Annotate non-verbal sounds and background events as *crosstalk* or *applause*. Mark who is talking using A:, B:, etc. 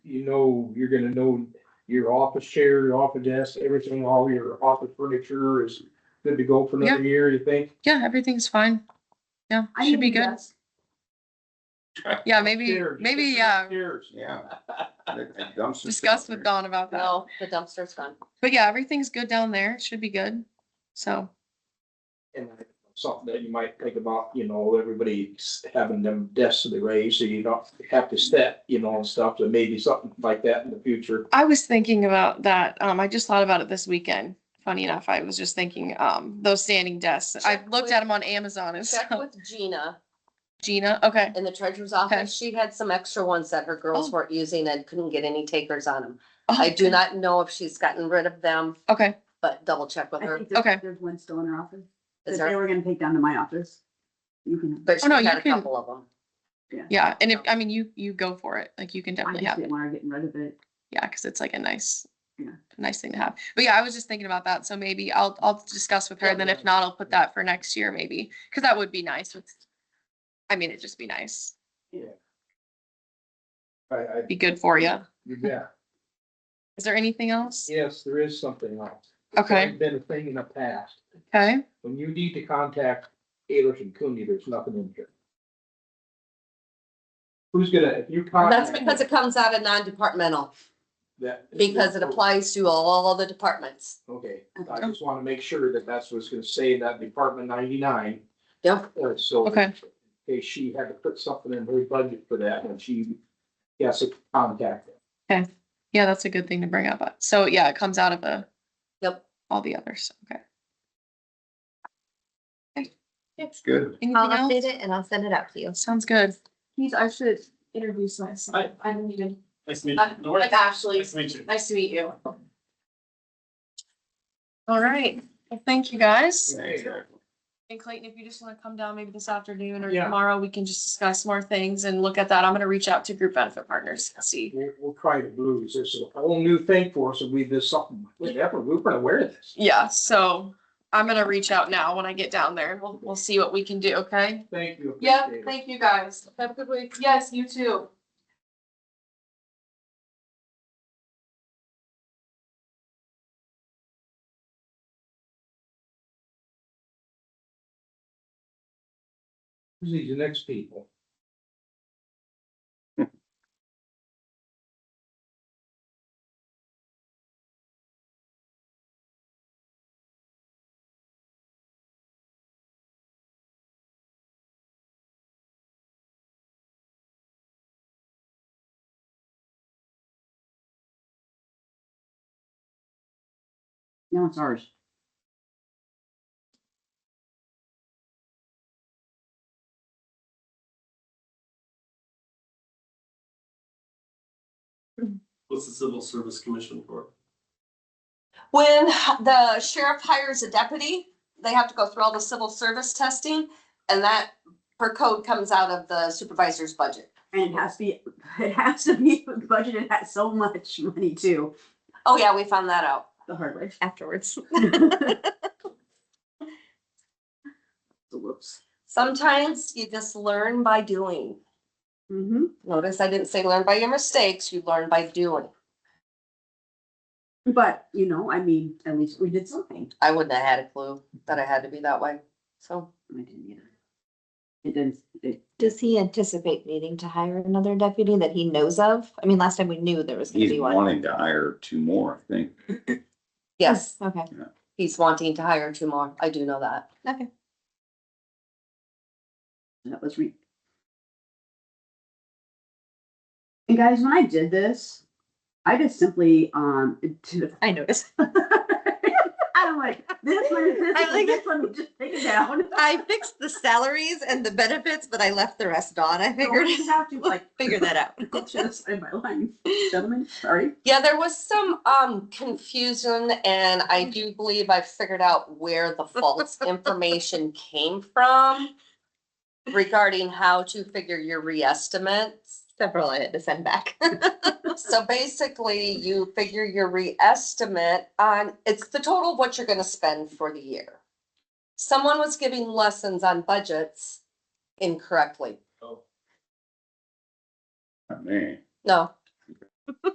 A: you know, you're gonna know your office chair, your office desk, everything, all your office furniture is good to go for another year, you think?
B: Yeah, everything's fine. Yeah,
C: I
B: should be
C: need a
B: good.
C: desk.
B: Yeah, Uh, maybe,
A: Upstairs,
B: maybe, uh,
A: just
B: yeah,
A: upstairs.
D: Yeah. That- that dumpster's
B: discuss
D: down
B: with
D: there.
B: Dawn about that.
C: No, the dumpster's gone.
B: But yeah, everything's good down there. It Should be good. So,
A: And something that you might think about, you know, everybody's having them desks to raise, so you don't have to step, you know, and stuff, so maybe something like that in the future.
B: I was thinking about that. Um, I just thought about it this weekend. Funny enough, I was just thinking, um, those standing desks. I
C: Check
B: looked
C: with-
B: at them on Amazon and *laughs*
C: Check
B: stuff.
C: with Gina
B: Gina, okay.
C: in the treasurer's office. She had some extra ones that her girls
B: Oh.
C: weren't using and couldn't get any takers on them.
B: Oh,
C: I do not know if she's gotten rid of them,
B: *laughs* Okay,
C: but double check with
E: I
C: her.
E: think there's,
B: Okay.
E: there's one still in her office,
C: Is
E: that they
C: there,
E: were gonna take down to my office. You can,
B: Oh,
C: but she
B: no,
C: had
B: you
C: a
B: can-
C: couple of them.
B: yeah. And if, I mean, you, you go for it. Like you can
E: I
B: definitely
E: just
B: have it.
E: didn't want her getting rid of it.
B: yeah, because it's like a nice,
E: Yeah.
B: a nice thing to have. But yeah, I was just thinking about that. So maybe I'll, I'll discuss with her.
C: Yeah,
B: and then if not, I'll put that for next year maybe, because that would be nice. with- I mean, it'd just be nice.
A: I, I,
B: Be good for you.
A: yeah,
B: Is there anything else?
A: yes, there is something else.
B: Okay,
A: There's Been a thing in the past.
B: okay.
A: When you need to contact Ayers and Cooney, there's nothing in here. Who's gonna, if you
C: That's
A: contact.
C: because it comes out of non-departmental,
A: that-
C: because it applies to all the departments.
A: Okay, I just wanna make sure that that's what's gonna say in that Department ninety-nine,
C: Yep,
A: uh, so.
B: Okay.
A: in case she had to put something in her budget for that, and she, has to contact it.
B: Yeah, that's a good thing to bring up. Uh, So yeah, it comes out of a.
C: Yep.
B: All the others, okay.
D: It's good.
B: Anything
F: I'll update
B: else?
F: it and I'll send it out to you.
B: Sounds good.
G: Please, I should introduce myself. I'm needed.
H: Nice to meet
G: I'm
H: you.
G: Uh, Ashley.
H: Nice to meet you.
G: Nice to meet you.
B: All right. Well, thank you guys.
D: Yeah, exactly.
B: And Clayton, if you just want to come down maybe this afternoon or
A: Yeah.
B: tomorrow, we can just discuss more things and look at that. I'm gonna reach out to group benefit partners, and see.
A: We'll, we'll try the blues, this is a whole new thing for us, and we did something, whatever, we weren't aware of this.
B: Yeah, so I'm gonna reach out now when I get down there. We'll, we'll see what we can do, okay?
A: Thank you.
G: Yeah,
A: appreciate it.
G: thank you guys. Have a good week. Yes, you too.
A: Who's these next people?
E: Now it's ours.
H: What's the Civil Service Commission for?
C: when the sheriff hires a deputy, they have to go through all the civil service testing, and that per code comes out of the supervisor's budget.
E: And it has to be, it has to be budgeted at so much money too,
C: Oh, yeah, we found that out.
E: the hard way.
C: *laughs*
F: Afterwards.
E: *laughs* Whoops.
C: Sometimes you just learn by doing.
E: Mm-hmm.
C: Notice I didn't say learn by your mistakes, you learn by doing.
E: But, you know, I mean, at least we did something.
C: I wouldn't have had a clue that I had to be that way, so.
E: I didn't either. It didn't, it,
F: Does he anticipate needing to hire another deputy that he knows of? I mean, last time we knew there was gonna
D: He's
F: be one.
D: wanting to hire two more, I think.
C: Yes,
F: Okay,
C: he's wanting to hire two more. I do know that.
F: okay.
E: that was re. And guys, when I did this, I just simply, um, *laughs* did-
F: I noticed. *laughs*
E: I'm like, this one, this
F: I
E: one,
F: like-
E: this one, just take it down.
F: I
E: *laughs*
F: fixed the salaries and the benefits, but I left the rest on. I figured,
C: Oh.
E: Don't have to like
F: *laughs* figure that
E: *laughs*
F: out.
E: just in my line, gentlemen, sorry.
C: Yeah, there was some um confusion and I do believe I figured out where the false information came from regarding how to figure your reestimates.
F: Several I had to send back.
C: So basically, you figure your reestimate on, it's the total of what you're gonna spend for the year. Someone was giving lessons on budgets incorrectly.
D: Not me.
C: No,